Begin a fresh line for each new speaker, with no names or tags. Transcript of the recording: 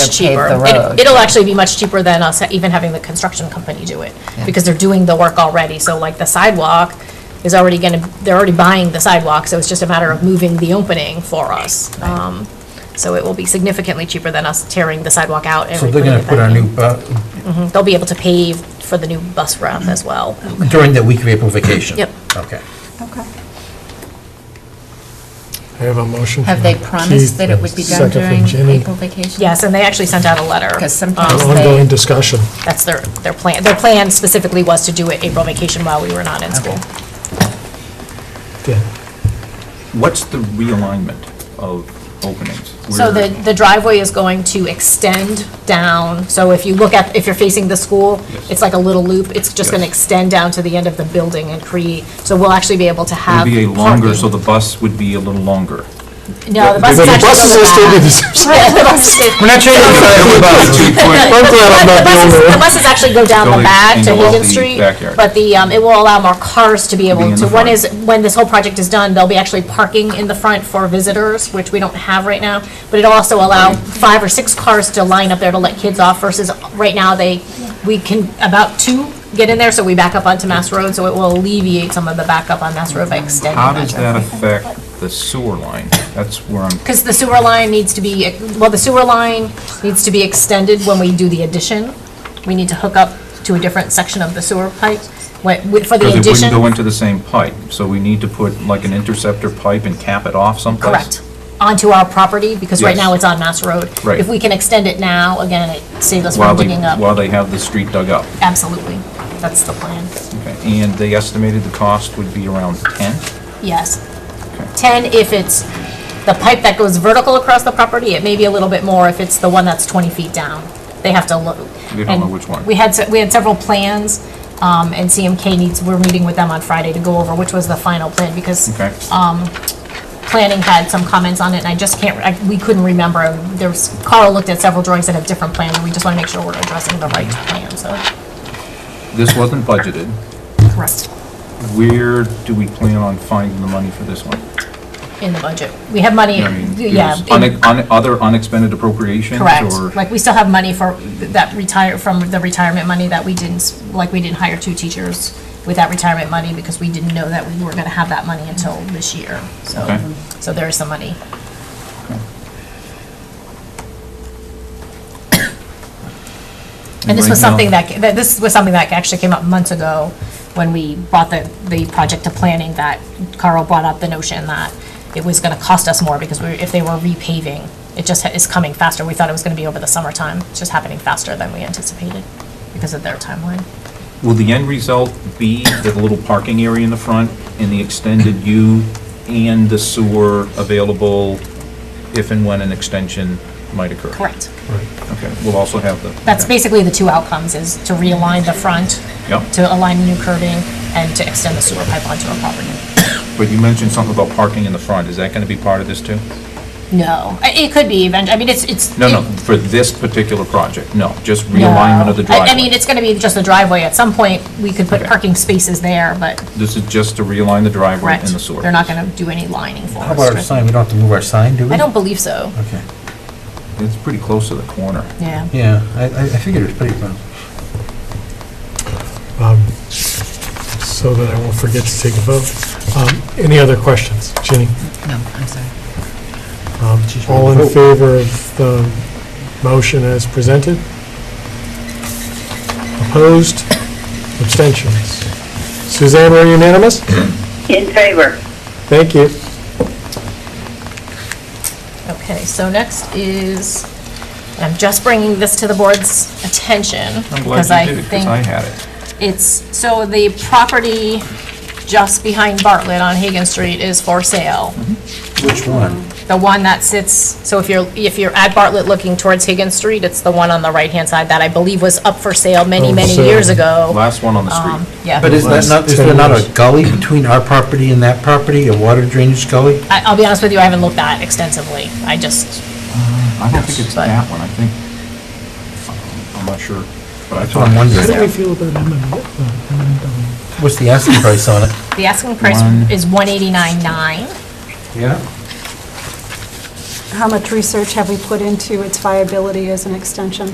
They're
much cheaper.
paved the
It-
road.
It'll actually be much cheaper than us even having the construction company do it,
Yeah.
because they're doing the work already. So like the sidewalk is already gonna, they're already buying the sidewalk, so it's just a matter of moving the opening for us. Um, So it will be significantly cheaper than us tearing the sidewalk out and
So they're going to put our
repaving
new, uh,
it. Mm-hmm.
bu-
They'll be able to pave for the new bus route as well.
during the week of April vacation?
Yep.
Okay.
Okay.
I have a motion.
Have they promised that it would be done during April vacation?
Yes, and they actually sent out a letter.
Because
Um,
sometimes
Ongoing
they,
discussion.
That's their, their plan. Their plan specifically was to do it April vacation while we were not in school.
Yeah.
What's the realignment of openings?
So the,
Where-
the driveway is going to extend down, so if you look at, if you're facing the school,
Yes.
it's like a little loop, it's just gonna
Yes.
extend down to the end of the building and create, so we'll actually be able to
It'll
have.
be a longer,
parking.
so the bus would be a little longer.
No, the bus
The
is actually.
buses
going
will still be
back.
the same.
Right, the bus is-
We're not changing the
But
I'm glad I'm
The
not the only
buses, the
one.
buses actually go down the
Building
back to
angle of
Higgins
the
Street,
backyard.
but the, um, it will allow more cars to be
Be
able
in
to,
the
one
front.
is, when this whole project is done, there'll be actually parking in the front for visitors, which we don't have right now, but it'll also allow five or six cars to line up there to let kids off versus, right now, they, we can, about two get in there, so we back up onto Mass Road, so it will alleviate some of the backup on Mass Road by extending
How
that
does that
traffic.
affect the sewer line? That's where I'm,
Because the sewer line needs to be, well, the sewer line needs to be extended when we do the addition. We need to hook up to a different section of the sewer pipe when- wi- for the
because it wouldn't go
addition.
into the same pipe. So we need to put like an interceptor pipe and cap it off someplace?
Correct. Onto our property, because right
Yes.
now it's on Mass Road.
Right.
If we can extend it now, again, it saves us
While
from
they,
digging
while
up.
they have the street dug up.
Absolutely. That's the plan.
Okay. And they estimated the cost would be around 10?
Yes. 10 if it's the pipe that goes vertical across the property, it may be a little bit more if it's the one that's 20 feet down. They have to look.
They don't know
And
which one.
We had, se- we had several plans, um, and CMK needs, we're meeting with them on Friday to go over which was the final plan, because
Okay.
Um. planning had some comments on it, and I just can't, I- we couldn't remember. There was, Carl looked at several drawings that have different plans, and we just want to make sure we're addressing the right plan, so.
This wasn't budgeted.
Correct.
Where do we plan on finding the money for this one?
In the budget. We have money,
I mean,
yeah.
there's
in-
une- un- Other unexpended appropriations? or-
Correct. Like, we still have money for that retire, from the retirement money that we didn't, s- like, we didn't hire two teachers with that retirement money because we didn't know that we were gonna have that money until this year, so,
Okay.
so there is some money. And this
right
was
now-
something that, that- this was something that actually came up months ago when we brought the, the project to planning that Carl brought up the notion that it was gonna cost us more because we, if they were repaving, it just ha- is coming faster. We thought it was gonna be over the summertime. It's just happening faster than we anticipated because of their timeline.
Will the end result be the little parking area in the front and the extended U and the sewer available if and when an extension might occur?
Correct.
Okay, we'll also have the.
That's
okay.
basically the two outcomes, is to realign the front,
Yep.
to align the new curving, and to extend the sewer pipe onto our property.
But you mentioned something about parking in the front. Is that going to be part of this too?
No, I- it could be event, I mean, it's, it's.
No,
it-
no, for this particular project, no, just
no.
realignment of the
I-
driveway.
I mean, it's gonna be just the driveway. At some point, we could put
Okay.
parking spaces there, but,
This is just to realign the driveway
correct.
and the sewer.
They're not gonna do any lining for us.
How about our
right?
sign? We don't have to move our sign, do we?
I don't believe so,
Okay.
It's pretty close to the corner.
yeah.
Yeah, I, I I figured it was pretty close.
So that I won't forget to take a vote. Um, Any other questions? Ginny?
no, I'm sorry.
Um, All in favor of the motion as presented? Opposed? Abstentions? Suzanne, were you unanimous?
In favor.
Thank you.
Okay, so next is, I'm just bringing this to the board's attention.
I'm
because
glad you did it,
think
because I had it.
It's, so the property just behind Bartlett on Hagan Street is for sale.
Which one?
The one that sits, so if you're, if you're at Bartlett looking towards Hagan Street, it's the one on the right-hand side that I believe was up for sale many,
Oh,
many
so-
years ago.
Last one on the
Um,
street.
Yeah.
But is that not, is there not a
Ten
gully between our property and that property, a water drainage gully?
I- I'll be honest with you, I haven't looked that extensively. I just,
I don't think it's
But-
that one, I think, I'm not sure, but I
That's what I'm
thought
How do we
wondering.
feel about M&M?
What's the asking price on it?
the asking price
One.
is 189.9.
Yeah.
how much research have we put into its viability as an extension?